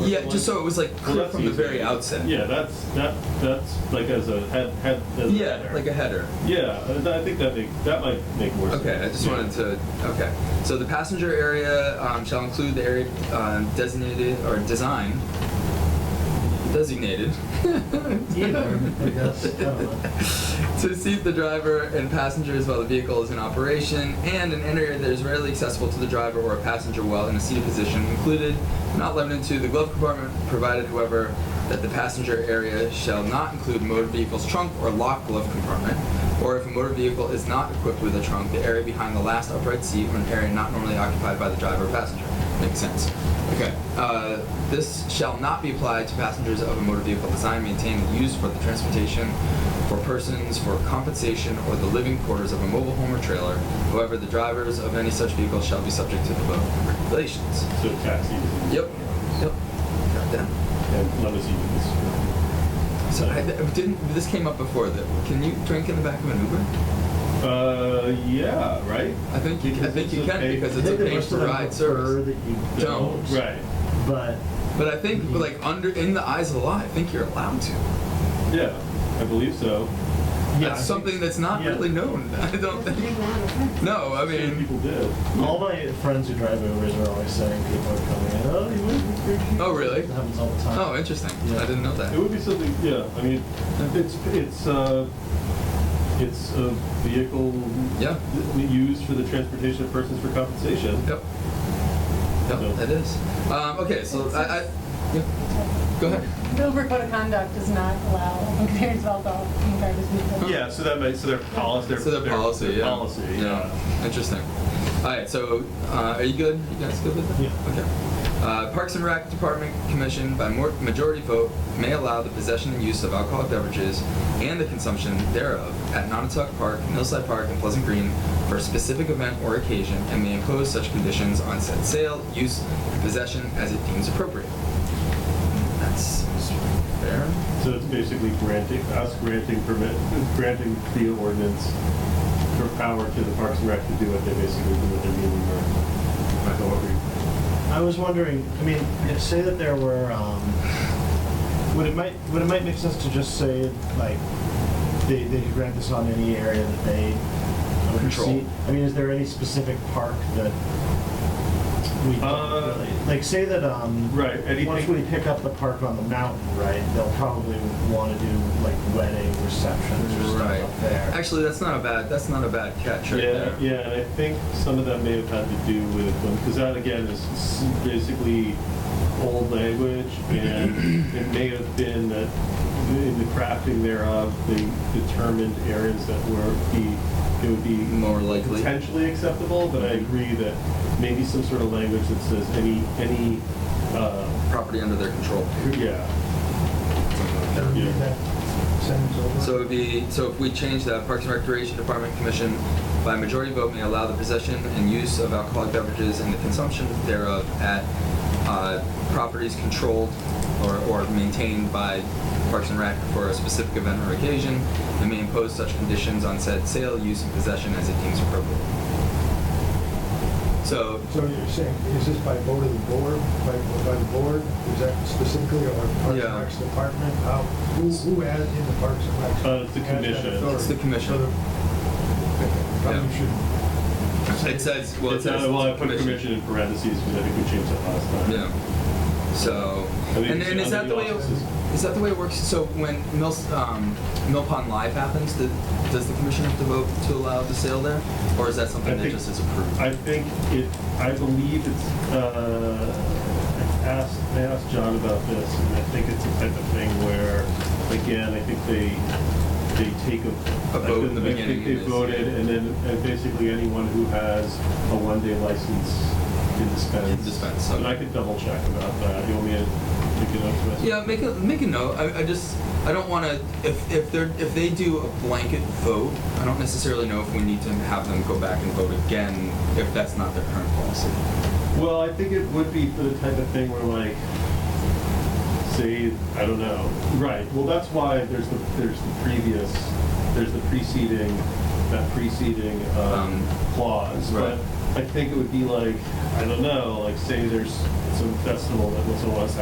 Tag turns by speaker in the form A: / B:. A: Yeah, just so it was like
B: Well,
A: clear
B: that's
A: from the
B: easy.
A: very outset.
B: Yeah, that's that that's like as a head head. As a
A: Yeah,
B: header.
A: like a header.
B: Yeah, I- I think that make, that might make more sense.
A: Okay, I just
B: Yeah.
A: wanted to. Okay, so the passenger area um, shall include the area um, designated or designed. Designated
C: Either, I guess. I don't know.
A: to seat the driver and passengers while the vehicle is in operation, and an area that is readily accessible to the driver or a passenger while in a seated position, included, not limited to, the glove compartment, provided, however, that the passenger area shall not include motor vehicle's trunk or locked glove compartment, or if a motor vehicle is not equipped with a trunk, the area behind the last upright seat or an area not normally occupied by the driver or passenger. Makes sense. Okay. Uh, this shall not be applied to passengers of a motor vehicle designed, maintained, and used for the transportation for persons for compensation or the living quarters of a mobile home or trailer. However, the drivers of any such vehicle shall be subject to the above regulations.
B: So taxis. and-
A: Yep. Yep. Got that.
B: And limousines.
A: So I, I didn't. This came up before. That can you drink in the back of an Uber?
B: Uh, yeah, right.
A: I think you. I
B: Because
A: think
B: it's
A: you can
B: okay.
A: because
B: I
A: it's
C: think
A: a
C: the
A: pay
C: rest
A: for
C: of them
A: ride
C: prefer
A: service.
C: that you
A: Don't.
B: Right.
C: But
A: But I think, like under in the eyes of the law, I think you're allowed to.
B: Yeah, I believe so.
C: yeah, I
A: that's
C: think
A: something that's not
C: yeah.
A: really known. I don't think. No, I
B: Shame
A: mean.
B: people did.
C: all my friends who drive Ubers are always saying people are coming in. Oh, you wouldn't be here."
A: Oh, really?
C: It happens all the time.
A: Oh, interesting.
C: Yeah.
A: I didn't know
B: It
A: that.
B: would be something. Yeah, I mean, it's it's uh, it's a vehicle
A: Yeah.
B: th- used for the transportation of persons for compensation.
A: Yep.
B: No.
A: Yep, that is. Um, okay, so I, I yeah. go ahead.
D: The Uber code of conduct does not allow containers of alcohol in garbage vehicles.
B: Yeah, so that makes so their policy. Their,
A: So the
B: their-
A: policy,
B: their
A: yeah.
B: Policy. Yeah.
A: Interesting. All right, so uh, are you good? You guys good with that?
B: Yeah.
A: Okay. Uh, Parks and Rec Department Commission, by more, majority vote, may allow the possession and use of alcoholic beverages and the consumption thereof at Nonotuck Park, Millside Park, and Pleasant Green for a specific event or occasion, and may impose such conditions on said sale, use, and possession as it deems appropriate. That's fair.
B: So it's basically granting us granting permit granting the ordinance for power to the Parks and Rec to do what they basically do with their meeting or however.
C: I was wondering. I mean, if- say that there were. Um, would it might would it might make sense to just say like they they could grant this on any area that they
A: Control.
C: oversee? I mean, is there any specific park that we don't
B: Uh,
C: really like? Say that um
B: Right, anything-
C: once we pick up the park on the mountain, right? They'll probably want to do like wedding receptions or
A: Right.
C: stuff up there.
A: Actually, that's not a bad. That's not a bad catch right
B: yeah,
A: there.
B: yeah, and I think some of that may have had to do with because that again is s- basically old language, and it may have been that in the crafting thereof, they determined areas that were be it would be
A: More likely.
B: potentially acceptable, but I agree that maybe some sort of language that says any, any, uh,
A: property under their control.
B: yeah,
C: Read that sentence over.
A: So it would be, so if we change that Parks and Recreation Department Commission by majority vote may allow the possession and use of alcoholic beverages and the consumption thereof at uh, properties controlled or, or maintained by Parks and Rec for a specific event or occasion and may impose such conditions on said sale, use, and possession as it deems appropriate. So
E: So you're saying, is this by vote of the board, by, by the board, is that specifically, or Parks
A: Yeah.
E: and Recs Department, how, who, who has in the Parks and Recs?
B: Uh, it's the
E: has that
B: commission.
E: authority?
A: It's the commission.
E: So the- okay,
A: Yeah.
E: Probably should,
A: it says, well, it
B: it's, uh,
A: says
B: well, I put commission in parentheses, because I think we changed that last time.
A: Yeah. So,
B: I mean,
A: and, and is
B: under
A: that the way it,
B: offices.
A: is that the way it works? So when Mill um, Mill Pond Live happens, the, does the commission have to vote to allow the sale there, or is that something
B: I
A: that
B: think-
A: just is approved?
B: I think it, I believe it's, uh, I asked, I asked John about this, and I think it's the type of thing where, again, I think they, they take a.
A: A vote in the
B: I think- I think
A: beginning
B: They
A: is-
B: voted, and then uh, basically anyone who has a one-day license can dispense.
A: Can dispense,
B: And I
A: okay.
B: could double check about that, you want me to pick it up? Chris?
A: yeah, make a make a note. I, I just I don't want to if if they are if they do a blanket vote, I don't necessarily know if we need to have them go back and vote again if that's not their current policy.
B: Well, I think it would be for the type of thing where like, say, I don't know. Right. Well, that's why there's the there's the previous, there's the preceding, that preceding um,
A: Um,
B: clause.
A: right.
B: But I think it would be like, I don't know, like say there's some festival that someone wants to